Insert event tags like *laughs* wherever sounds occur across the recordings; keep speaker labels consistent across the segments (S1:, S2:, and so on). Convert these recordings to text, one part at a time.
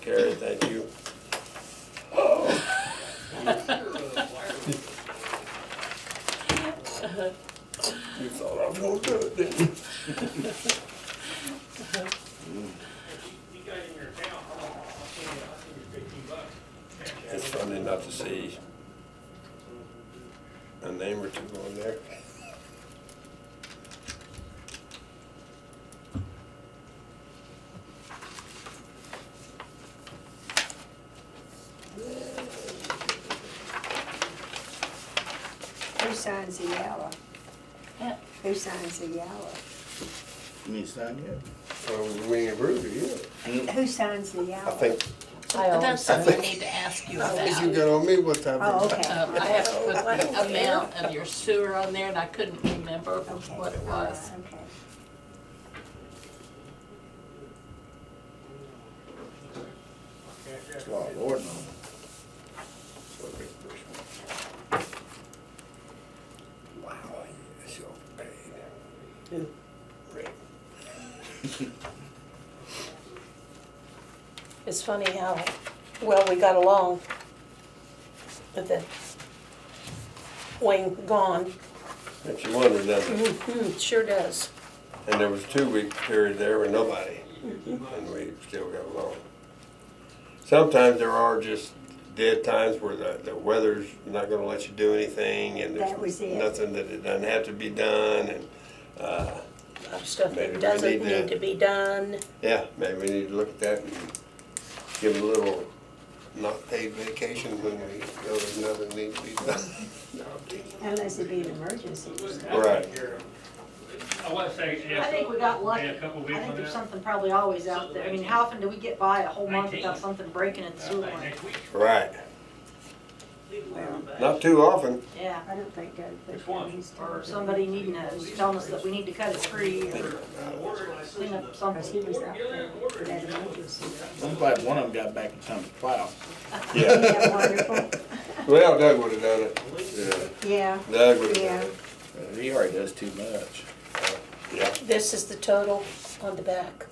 S1: carried, thank you. You thought I was gonna do it, didn't you?
S2: You got it in your account, I'll send you, I'll send you fifteen bucks.
S1: It's funny not to see a name or two on there.
S3: Who signs the yellow?
S4: Yeah.
S3: Who signs the yellow?
S5: You need to sign yet?
S1: Well, we ain't approved it yet.
S3: Who signs the
S1: Mm. I
S3: yellow?
S1: think,
S4: But that's something
S1: think-
S4: I need to ask you
S1: I
S4: about.
S1: think you got on me one time.
S3: Oh, okay.
S4: Um, I have to put the amount of your sewer on there and I couldn't remember
S3: Okay.
S4: what it was.
S6: Uh,
S3: Okay.
S5: That's why I ordered them.
S1: Wow, yes, you overpaid. Rick.
S7: It's funny how well we got along with the Wayne gone.
S1: Makes you wonder, doesn't it?
S7: Mhm, Sure does.
S1: And there was a two-week period there with nobody, and we still got along. Sometimes there are just dead times where the, the weather's not gonna let you do anything, and
S3: That was
S1: there's
S3: it.
S1: nothing that it doesn't have to be done, and, uh,
S7: A lot of stuff
S1: Maybe
S7: that
S1: we
S7: doesn't
S1: need to-
S7: need to be done.
S1: yeah, maybe we need to look at that and give a little not paid vacation when we know there's nothing needs to be done.
S3: Unless it be an emergency.
S1: Right.
S2: I want to say, yeah.
S6: I think we got lucky.
S2: Yeah,
S6: I
S2: a couple
S6: think
S2: weeks on that.
S6: there's something probably always out there. I mean, how often do we get by a whole month without something breaking in the sewer
S2: Like
S6: line?
S2: next week.
S1: *laughs* Right, not too often,
S6: Yeah,
S3: I don't think Doug
S2: Which one?
S3: Bush.
S6: or somebody needing us, telling us that we need to cut a tree or clean up
S3: Because he
S6: something.
S3: was out there for that emergency.
S5: I'm glad one of them got back in time to plow.
S1: yeah.
S3: Isn't that wonderful?
S1: *laughs* Well, Doug would've done it, yeah,
S3: Yeah,
S1: Doug would've done
S3: yeah.
S1: it,
S5: Uh, He already does too much.
S1: yeah.
S7: This is the total on the back.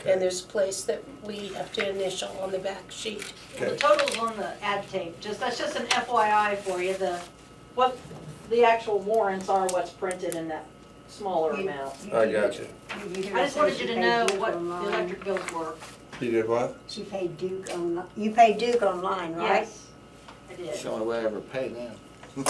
S1: Okay.
S7: And there's a place that we have to initial on the back sheet.
S6: The total's on the ad tape, just, that's just an FYI for you, the, what the actual warrants are, what's printed in that smaller amount.
S1: I got you.
S6: I just wanted you to know what the electric bills were.
S1: You did what?
S3: She paid Duke online. You paid Duke online, right?
S6: Yes, I did.
S5: It's the only way I ever pay now.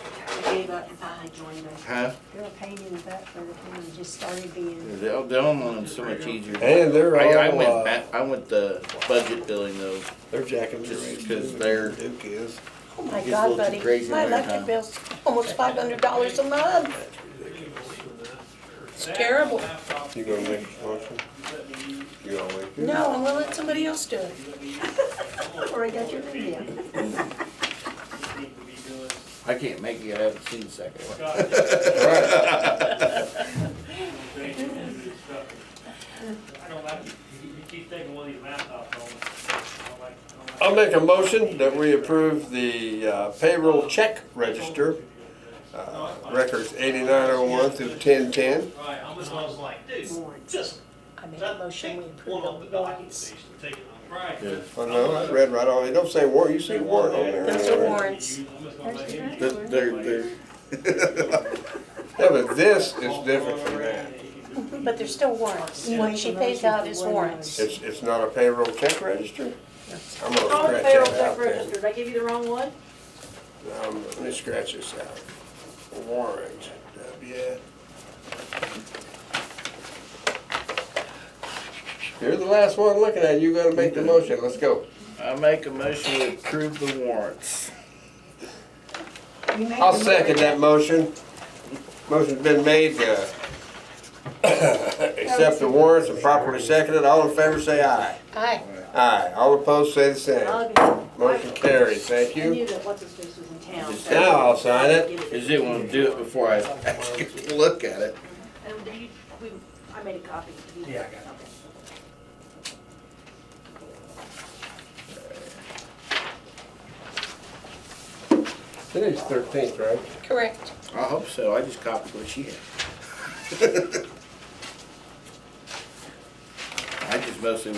S6: I gave up and finally joined them.
S5: Huh?
S3: You're a pain in the butt for the town. Just started being,
S5: They'll, they'll loan so much easier.
S1: And they're
S5: I, I
S1: all, uh,
S5: went back, I went the budget billing though.
S1: They're jacking their
S5: Just
S1: rates.
S5: 'cause they're-
S1: Duke is.
S7: Oh my
S5: It gets a
S7: God,
S5: little too
S7: buddy,
S5: crazy
S7: my
S5: every
S7: electric
S5: time.
S7: bill's almost five hundred dollars a month. It's terrible.
S1: You gonna make
S6: *laughs*
S1: a motion? You gonna make *laughs* it?
S7: No, I'm gonna let somebody else do it.
S3: or I got your
S2: *laughs*
S3: video.
S5: I can't make it, I haven't seen the second one.
S2: I don't like, you you keep taking one of these laptops home. I don't like- I don't like-
S1: I'll make a motion that we approve the uh, payroll check register, uh, records eighty-nine oh one through ten ten.
S2: Right, I'm just, I was like, dude, just.
S7: I make a motion, we approve all the warrants.
S2: Right.
S5: Yeah.
S1: Well, Oh, no, I read right on, it don't say warrant, you say warrant on there.
S7: Those are warrants.
S2: I'm just gonna let him-
S5: They're, they're, they're-
S1: *laughs* Yeah, but this is different from that.
S7: But they're still warrants. What she pays out is warrants.
S1: It's, it's not a payroll check register? I'm gonna
S6: Call the
S1: scratch
S6: payroll
S1: that
S6: check
S1: out then.
S6: register, did I give you the wrong one?
S1: Um, let me scratch this out. Warrant, W. You're the last one looking at it, you gotta make the motion, let's go.
S5: I make a motion to approve the warrants.
S3: You made
S1: I'll
S3: the
S1: second that motion. Motion's been made to accept the warrants and properly seconded, all in favor say aye.
S7: Aye.
S1: Aye, all opposed say the same.
S6: I
S1: Motion carries, thank you.
S6: knew that what's his face was in town. so-
S1: Now I'll sign it.
S5: Is it wanna do it before I actually look at it?
S6: And do you, we, I made a copy. Yeah, I got it.
S1: Today's thirteenth, right?
S7: Correct.
S5: I hope so, I just copied what *laughs* she had. I just mostly